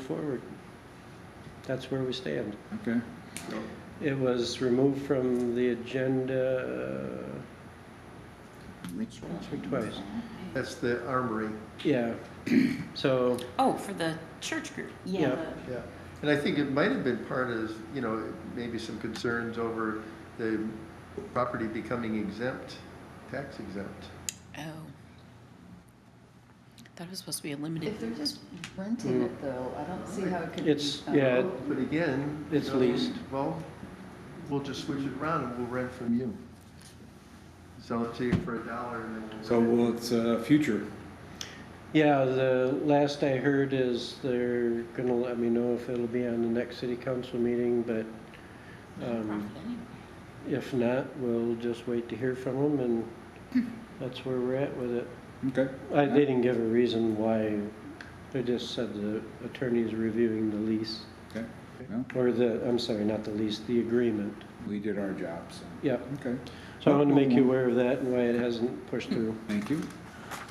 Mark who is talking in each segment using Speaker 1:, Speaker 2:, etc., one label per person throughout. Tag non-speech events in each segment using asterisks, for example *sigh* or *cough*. Speaker 1: forward. That's where we stand.
Speaker 2: Okay,
Speaker 1: It was removed from the agenda,
Speaker 2: Rich.
Speaker 1: Once or twice.
Speaker 3: That's the armory,
Speaker 1: yeah, so,
Speaker 4: Oh, for the church group.
Speaker 1: Yeah.
Speaker 3: yeah. And I think it might have been part of, you know, maybe some concerns over the property becoming exempt, tax exempt.
Speaker 4: Oh. That was supposed to be a limited.
Speaker 5: If they're just renting it though, I don't see how it could be.
Speaker 1: It's-
Speaker 5: um,
Speaker 1: yeah,
Speaker 3: But again. you
Speaker 1: Uh, It's
Speaker 3: know,
Speaker 1: leased.
Speaker 3: Well, we'll just switch it around and we'll rent from you. Sell it to you for a dollar and then. we'll
Speaker 2: So
Speaker 3: rent it.
Speaker 2: well, it's uh, future.
Speaker 1: yeah, the last I heard is they're gonna let me know if it'll be on the next city council meeting, but um,
Speaker 4: nonprofit anyway.
Speaker 1: if not, we'll just wait to hear from them, and
Speaker 5: *laughs*
Speaker 1: that's where we're at with it.
Speaker 2: Okay.
Speaker 1: I, they didn't give a reason why, they just said the attorney's reviewing the lease,
Speaker 2: Okay. Well,
Speaker 1: or the, I'm sorry, not the lease, the agreement,
Speaker 2: we did our job, so.
Speaker 1: yeah.
Speaker 2: Okay.
Speaker 1: So I want to make you aware of that and why it hasn't pushed through.
Speaker 2: Thank you.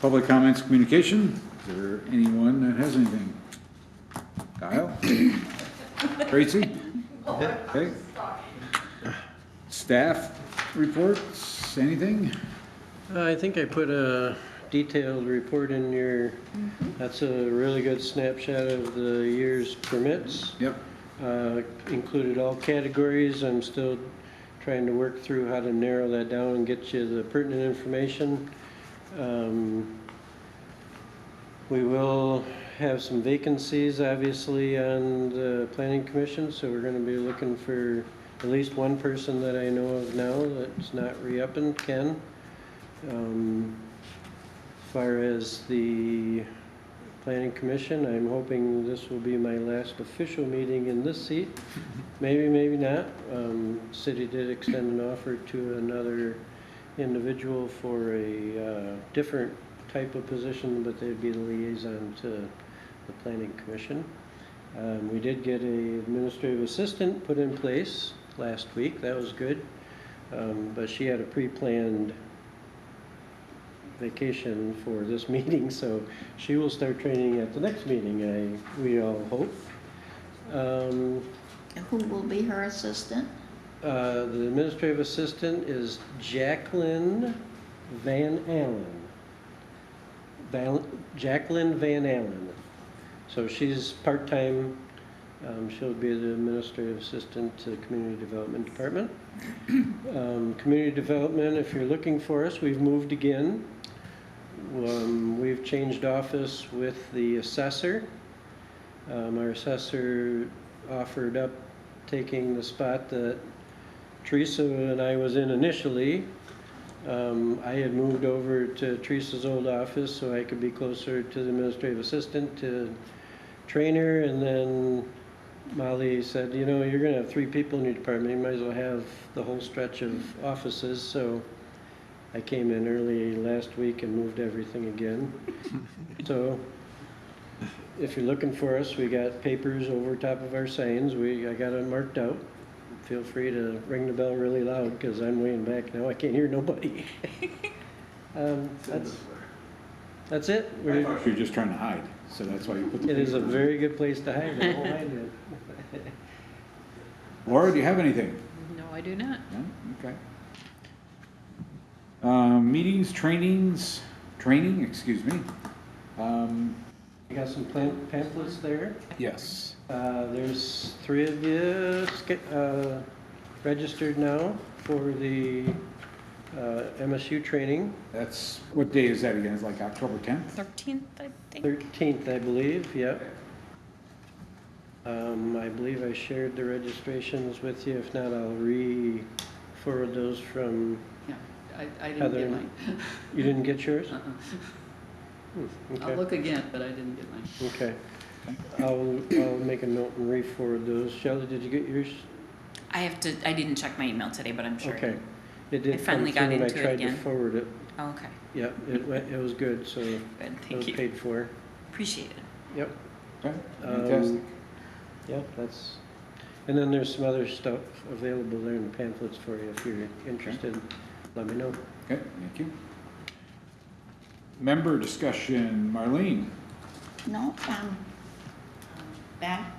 Speaker 2: Public comments, communication. Is there anyone that has anything? Kyle? Tracy? Okay. Staff reports, anything?
Speaker 1: Uh, I think I put a detailed report in your, that's a really good snapshot of the year's permits.
Speaker 2: Yep.
Speaker 1: Uh, Included all categories. I'm still trying to work through how to narrow that down and get you the pertinent information. Um, We will have some vacancies, obviously, on the planning commission, so we're gonna be looking for at least one person that I know of now that's not re-upping, Ken. Um, As far as the planning commission, I'm hoping this will be my last official meeting in this seat. Maybe, maybe not. Um, city did extend an offer to another individual for a, uh, different type of position, but they'd be the liaison to the planning commission. Um, we did get a administrative assistant put in place last week. That was good. Um, but she had a pre-planned vacation for this *laughs* meeting, so she will start training at the next meeting, I, we all hope. Um,
Speaker 6: Who will be her assistant?
Speaker 1: uh, the administrative assistant is Jacqueline Van Allen. Val- Jacqueline Van Allen. So she's part-time, um, she'll be the administrative assistant to the Community Development Department. Um, community Development, if you're looking for us, we've moved again. Um, we've changed office with the assessor. Um, our assessor offered up taking the spot that Teresa and I was in initially. Um, I had moved over to Teresa's old office so I could be closer to the administrative assistant, to trainer, and then Molly said, you know, you're gonna have three people in your department, you might as well have the whole stretch of offices, so I came in early last week and moved everything again. So, if you're looking for us, we got papers over top of our signs, we, I got it marked out. Feel free to ring the bell really loud, because I'm way in back now, I can't hear nobody. *laughs* Um, That's, that's it.
Speaker 2: I
Speaker 1: We're-
Speaker 2: thought you were just trying to hide, so that's why you put the.
Speaker 1: It is a
Speaker 2: papers.
Speaker 1: very good place to hide, I won't mind it.
Speaker 2: Laura, do you have anything?
Speaker 4: No, I do not.
Speaker 2: No? Okay. Um, meetings, trainings, training, excuse me. Um,
Speaker 1: I got some pam- pamphlets there.
Speaker 2: yes.
Speaker 1: Uh, There's three of you sca- uh, registered now for the uh, MSU training,
Speaker 2: That's, what day is that again? It's like October tenth?
Speaker 4: 13th, I think.
Speaker 1: 13th, I believe, yep. Um, I believe I shared the registrations with you, if not, I'll re-forward those from,
Speaker 5: Yeah, I, I didn't
Speaker 1: Heather.
Speaker 5: get mine.
Speaker 1: you didn't get yours?
Speaker 5: *laughs* Uh-uh.
Speaker 1: Hmm,
Speaker 5: I'll
Speaker 1: Okay.
Speaker 5: look again, but I didn't get mine.
Speaker 1: Okay. I'll, I'll make a note and re-forward those. Shelley, did you get yours?
Speaker 4: I have to, I didn't check my email today, but I'm sure. I
Speaker 1: Okay.
Speaker 4: did.
Speaker 1: It did come
Speaker 4: finally
Speaker 1: through
Speaker 4: got
Speaker 1: and I
Speaker 4: into it
Speaker 1: tried to
Speaker 4: again.
Speaker 1: forward it.
Speaker 4: Oh, okay.
Speaker 1: Yep, it went, it was good, so it
Speaker 4: Good.
Speaker 1: was
Speaker 4: Thank you.
Speaker 1: paid for.
Speaker 4: Appreciate it.
Speaker 1: Yep,
Speaker 2: Okay,
Speaker 1: Um,
Speaker 2: fantastic.
Speaker 1: yep, that's, and then there's some other stuff available there in the pamphlets for you if you're interested. Let me know.
Speaker 2: Okay, thank you. Member discussion, Marlene,
Speaker 6: No, um,
Speaker 4: back